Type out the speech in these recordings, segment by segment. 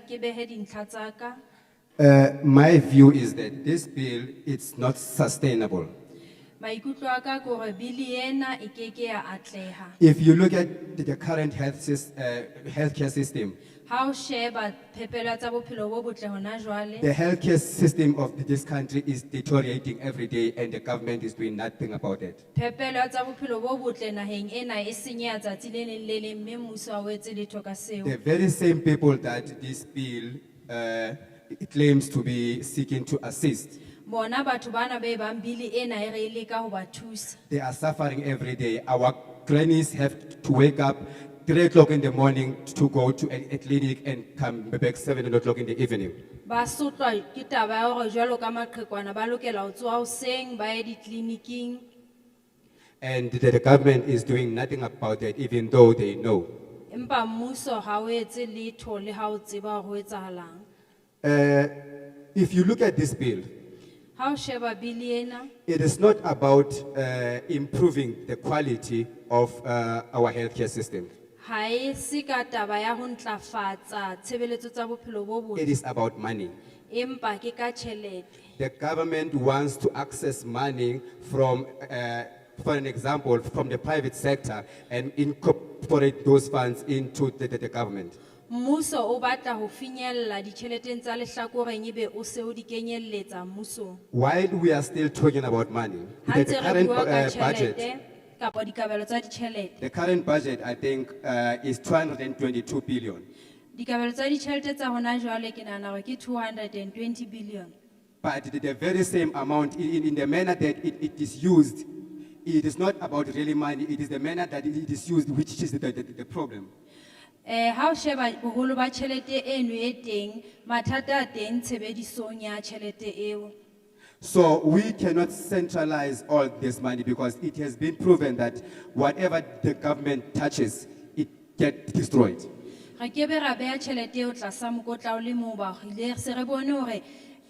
ke behe dintlha tsa ka Uh, my view is that this bill is not sustainable. maikutlo a ka ke gore bili ena e keke ya atleha If you look at the current health sys, uh, healthcare system, ha o sheba phepelo tsa bophelo bo botle hona jwale the healthcare system of this country is deteriorating every day and the government is doing nothing about it. phepelo tsa bophelo bo botle naheng ena e senyeha tsatsi le leng le leng mme mmuso ha o etse letho ka seo The very same people that this bill uh, claims to be seeking to assist, bona batho bana be bang bili ena e re e leka ho ba thusa they are suffering every day. Our grannies have to wake up three o'clock in the morning to go to a, a clinic and come back seven o'clock in the evening. ba sotlwa ke taba ya hore jwalo ka maqhekwana ba lokela ho tsoha hoseng ba ye ditleliniking And that the government is doing nothing about it, even though they know. empa mmuso ha o etse letho le ha o tseba hore ho etsahalang Uh, if you look at this bill, ha o sheba bili ena it is not about uh, improving the quality of uh, our healthcare system. ha e se ka taba ya ho ntlafatsa tshebeletso tsa bophelo bo It botle is about money. empa ke ka tjhelete The government wants to access money from, uh, for an example, from the private sector and incorporate those funds into the, the, the government. mmuso o batla ho finyella ditjheleteng tsa lehlakoreng ebe o se o di kenyelletsa mmusong While we are still talking about money, ha the ntse re current bua ka uh, budget tjhelete kapa dikabelo tsa ditjhelete The current budget, I think, uh, is 222 billion. dikabelo tsa ditjhelete tsa hona jwale ke nahana hore ke 220 billion But the- the very same amount, i- in, in the manner that it, it is used, it is not about really money, it is the manner that it is used which is the, the, the problem. Eh, ha o sheba boholo ba tjhelete eno e teng, mathata a teng tshebedisong ya tjhelete eo. So we cannot centralize all this money because it has been proven that whatever the government touches, it gets destroyed. Re kebe ra beha tjhelete eo tlasa mokotla o le moo ba hile, se re bone hore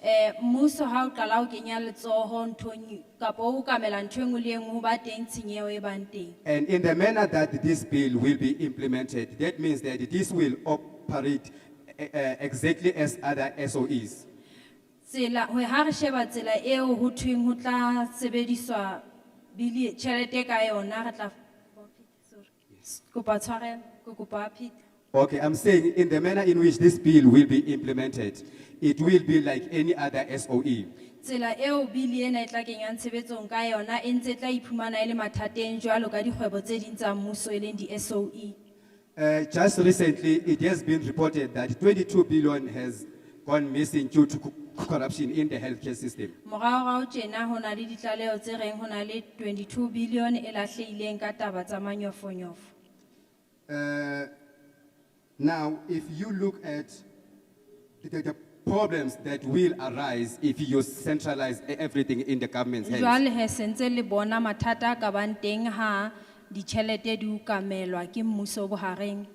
eh, mmuso ha o qala ho kenya letsoho nthong, kapa o kamela ntho e nngwe le e nngwe ho ba teng tshenyeho e bang teng. And in the manner that this bill will be implemented, that means that this will operate uh, uh, exactly as other SOEs. Tsela, ho- ha re sheba tsela eo ho thweng ho tla sebediswa bili, tjhelete ka yona, re tla. Kopa tshwarelo, ke kopa phete. Okay, I'm saying in the manner in which this bill will be implemented, it will be like any other E. SOE. tsela eo bili ena e tla kenyang tshebetsong ka yona e ntse e tla iphumana e le mathateng jwalo ka dikgwebo tse ding tsa mmuso e leng di-soe Uh, just recently, it has been reported that 22 billion has gone missing due to co- corruption in the healthcare system. moraorao tjena ho na le ditlaleho tse reng ho na le 22 bilione e lahlehileng ka taba tsa manyofonyofo Uh, now, if you look at the, the problems that will arise if you centralize e- everything in the government's hands, jwale he sentse le bona mathata a ka bang teng ha ditjhelete di ukamelwa ke mmuso bohareng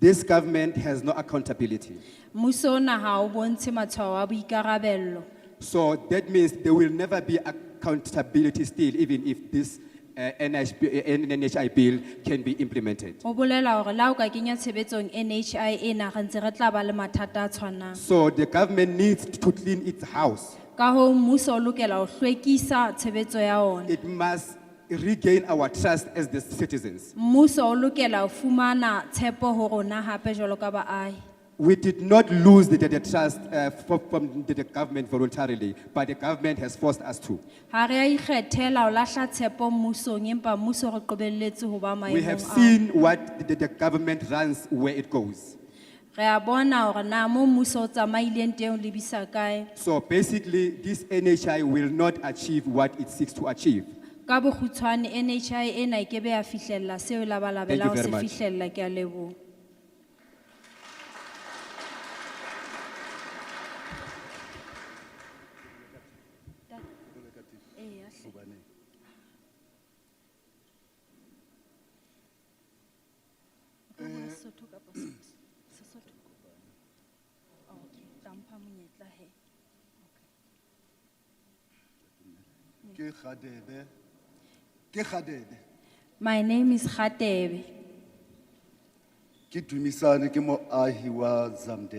this government has no accountability. mmuso ona ha o bontshe matshwao a boikarabello So that means there will never be accountability still, even if this uh, NHB, uh, NHI bill can be implemented. ho bolela hore la o ka kenya tshebetsong nhi ena re ntse re tla ba le mathata a tshwanang So the government needs to clean its house. ka hoo mmuso o lokela ho hlwekisa tshebetso ya ona It must regain our trust as the citizens. mmuso o lokela ho fumana tshepo ho rona hape jwalo ka baahi We did not lose the, the- the trust uh, fro- from the, the government voluntarily, but the government has forced us to. ha re a ikgethela ho lahla tshepo mmusong empa mmuso o re qobelletse ho ba We have maemong ao seen what the, the government runs where it goes. re a bona hore na mo mmuso o tsamaileng teng o lebisa kae So basically, this NHI will not achieve what it seeks to achieve. ka bokgutshwane nhi ena e kebe ya fihlella seo e labalabela Thank ho you se very much. fihlella ke a leboha ke khadebe ke khadebe my name is kgatebe ke dumisane ke moahi wa zamdele